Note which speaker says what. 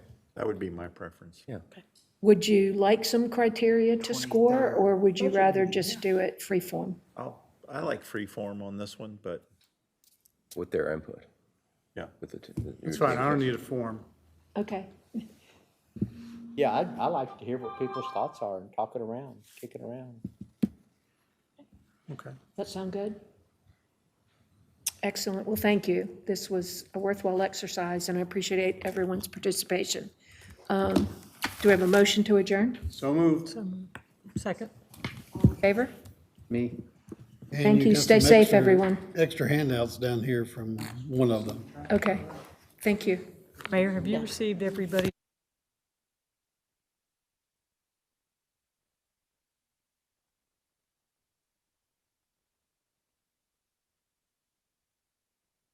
Speaker 1: That would be my preference.
Speaker 2: Yeah.
Speaker 3: Would you like some criteria to score, or would you rather just do it free form?
Speaker 1: I'll, I like free form on this one, but
Speaker 2: with their input,
Speaker 1: yeah.
Speaker 2: with the. t- the-
Speaker 4: It's fine, I don't need a form.
Speaker 3: Okay,
Speaker 5: Yeah, I, I like to hear what people's thoughts are and talk it around, kick it around.
Speaker 4: Okay.
Speaker 3: that sound good? Excellent, well, thank you. This was a worthwhile exercise, and I appreciate everyone's participation. Um, Do we have a motion to adjourn?
Speaker 4: So moved.
Speaker 6: Second.
Speaker 3: Favor?
Speaker 2: Me.
Speaker 3: Thank you, stay safe, everyone.
Speaker 7: Extra handouts down here from one of them.
Speaker 3: Okay, thank you.
Speaker 6: Mayor, have you received everybody's